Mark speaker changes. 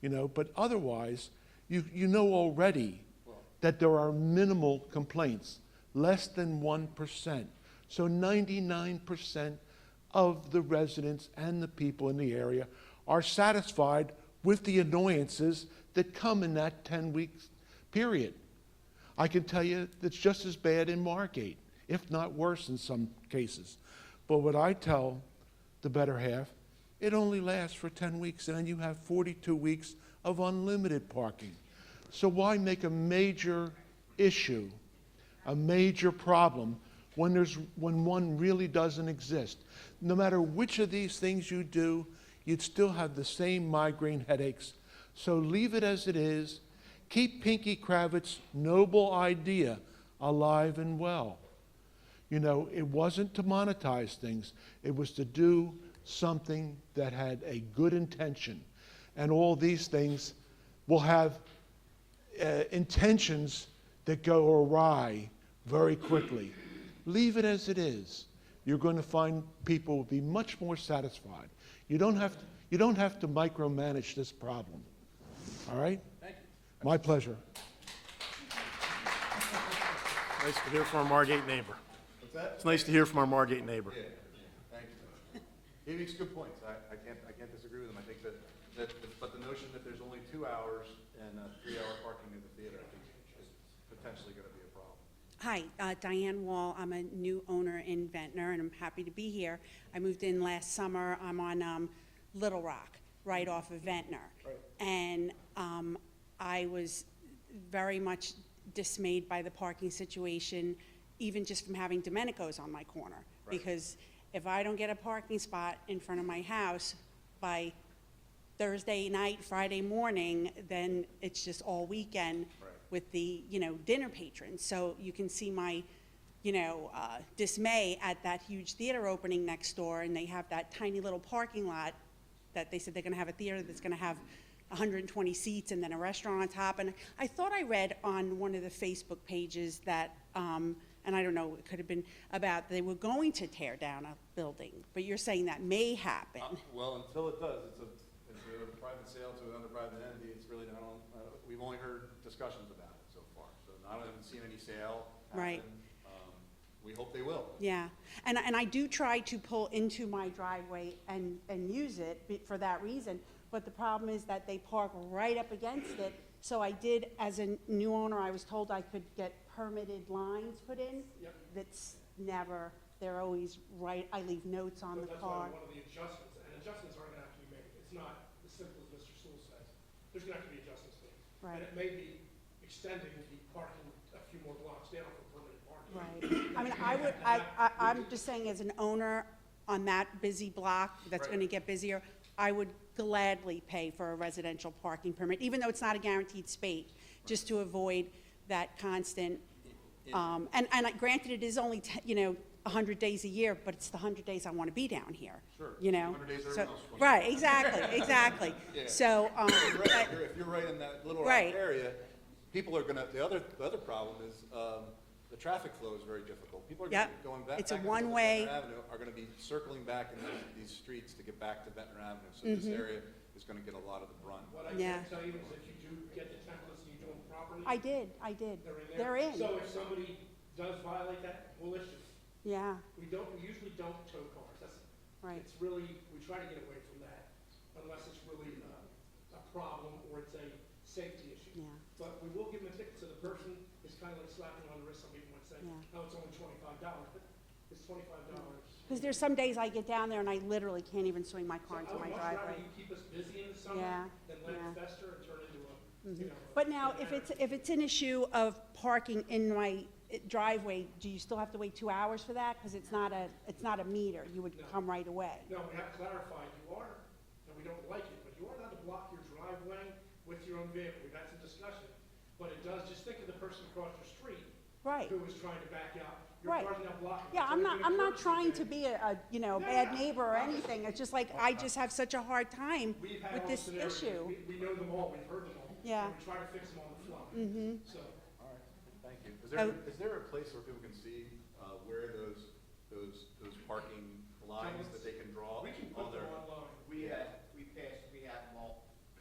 Speaker 1: you know, but otherwise, you, you know already that there are minimal complaints, less than 1%. So 99% of the residents and the people in the area are satisfied with the annoyances that come in that 10 week period. I can tell you it's just as bad in Margate, if not worse in some cases. But what I tell the better half, it only lasts for 10 weeks, and then you have 42 weeks of unlimited parking. So why make a major issue, a major problem, when, there's, when one really doesn't exist? No matter which of these things you do, you'd still have the same migraine headaches. So leave it as it is. Keep Pinky Kravitz's noble idea alive and well. You know, it wasn't to monetize things, it was to do something that had a good intention. And all these things will have uh, intentions that go awry very quickly. Leave it as it is. You're going to find people will be much more satisfied. You don't have to, you don't have to micromanage this problem. All right? Thank you. My pleasure.
Speaker 2: Nice to hear from our Margate neighbor. What's that? It's nice to hear from our Margate neighbor.
Speaker 3: Thank you. He makes good points. I, I can't, I can't disagree with him. I think that, that, but the notion that there's only two hours and a three-hour parking at the theater, I think is potentially gonna be a problem.
Speaker 4: Hi, uh, Diane Wall. I'm a new owner in Ventnor, and I'm happy to be here. I moved in last summer. I'm on um, Little Rock, right off of Ventnor. And um, I was very much dismayed by the parking situation, even just from having Domenico's on my corner. Because if I don't get a parking spot in front of my house by Thursday night, Friday morning, then it's just all weekend with the, you know, dinner patrons. So you can see my, you know, uh, dismay at that huge theater opening next door, and they have that tiny little parking lot that they said they're gonna have a theater that's gonna have hundred and twenty seats and then a restaurant on top. And I thought I read on one of the Facebook pages that, um, and I don't know, it could have been about they were going to tear down a building, but you're saying that may happen.
Speaker 3: Uh, Um, Well, until it does, it's a, it's a private sale to another private entity. It's really not on, uh, we've only heard discussions about it so far. So I haven't seen any sale
Speaker 4: Right.
Speaker 3: happen. Um, we hope they will.
Speaker 4: Yeah, and, and I do try to pull into my driveway and, and use it be- for that reason, but the problem is that they park right up against it. So I did, as a new owner, I was told I could get permitted lines put in. That's never, they're always right, I leave notes on the
Speaker 5: But that's why
Speaker 4: car.
Speaker 5: one of the adjustments, and adjustments are gonna have to be made. It's not as simple as Mr. Sewell says. There's gonna have to be adjustments made.
Speaker 4: Right.
Speaker 5: And it may be extending the parking a few more blocks down for permanent parking.
Speaker 4: Right, I mean, I would, I, I, I'm just saying as an owner on that busy block that's gonna get busier, I would gladly pay for a residential parking permit, even though it's not a guaranteed space, just to avoid that constant, um, and, and I- granted, it is only, te- you know, a hundred days a year, but it's the hundred days I wanna be down here.
Speaker 3: Sure.
Speaker 4: You know?
Speaker 3: 100 days
Speaker 4: So-
Speaker 3: everyone else wants.
Speaker 4: Right, exactly, exactly. So, um,
Speaker 3: You're right.
Speaker 4: I-
Speaker 3: If you're- If you're right in that Little Rock
Speaker 4: Right.
Speaker 3: area, people are gonna, the other, the other problem is, um, the traffic flow is very difficult. People are gonna
Speaker 4: Yep.
Speaker 3: be going back.
Speaker 4: It's a
Speaker 3: back and forth to
Speaker 4: one-way.
Speaker 3: Ventnor Avenue are gonna be circling back in these- these streets to get back to Ventnor Avenue. So this
Speaker 4: Mm-hmm.
Speaker 3: area is gonna get a lot of the brunt.
Speaker 5: What I
Speaker 4: Yeah.
Speaker 5: can tell you is if you do get the templates and you do them properly,
Speaker 4: I did, I did,
Speaker 5: they're in there.
Speaker 4: they're in,
Speaker 5: So if somebody does violate that, we'll issue.
Speaker 4: yeah,
Speaker 5: We don't, we usually don't tow cars. That's,
Speaker 4: right.
Speaker 5: it's really, we try to get away from that unless it's really uh, a problem or it's a safety issue.
Speaker 4: Yeah.
Speaker 5: But we will give them a ticket, so the person is kind of like slapping on the wrist, some people might say,
Speaker 4: Yeah. Mm-hmm.
Speaker 5: oh, it's only twenty-five dollars, but it's twenty-five dollars.
Speaker 4: Because there's some days I get down there and I literally can't even swing my car into my
Speaker 5: I would much rather
Speaker 4: driveway.
Speaker 5: you keep us busy in the summer
Speaker 4: Yeah,
Speaker 5: than let
Speaker 4: yeah. Mm-hmm.
Speaker 5: it fester and turn into a, you know. a-
Speaker 4: But now,
Speaker 5: an
Speaker 4: if
Speaker 5: anarchy.
Speaker 4: it's, if it's an issue of parking in my eh, driveway, do you still have to wait two hours for that? Because it's not a, it's not a meter, you would come right away.
Speaker 5: No, we have clarified, you are, and we don't like it, but you are allowed to block your driveway with your own vehicle, we've had some discussion. But it does, just think of the person across the street.
Speaker 4: Right.
Speaker 5: Who was trying to back out, your
Speaker 4: Right.
Speaker 5: car's now blocking.
Speaker 4: Yeah,
Speaker 5: So
Speaker 4: I'm
Speaker 5: we
Speaker 4: not,
Speaker 5: can
Speaker 4: I'm not
Speaker 5: encourage you
Speaker 4: trying
Speaker 5: to-
Speaker 4: to be a, a, you know, bad neighbor or anything, it's just like, I just have such a hard time
Speaker 5: We've had
Speaker 4: with
Speaker 5: all
Speaker 4: this
Speaker 5: scenarios.
Speaker 4: issue.
Speaker 5: We, we know them all, we've heard them all. and
Speaker 4: Yeah.
Speaker 5: we try to fix them on the fly. Mm-hmm. So,
Speaker 3: All right, thank you. Is there,
Speaker 4: Oh.
Speaker 3: is there a place where people can see, uh, where those, those, those parking lines that they can draw
Speaker 5: we can
Speaker 3: on
Speaker 5: put
Speaker 3: their?
Speaker 5: them online.
Speaker 6: We had,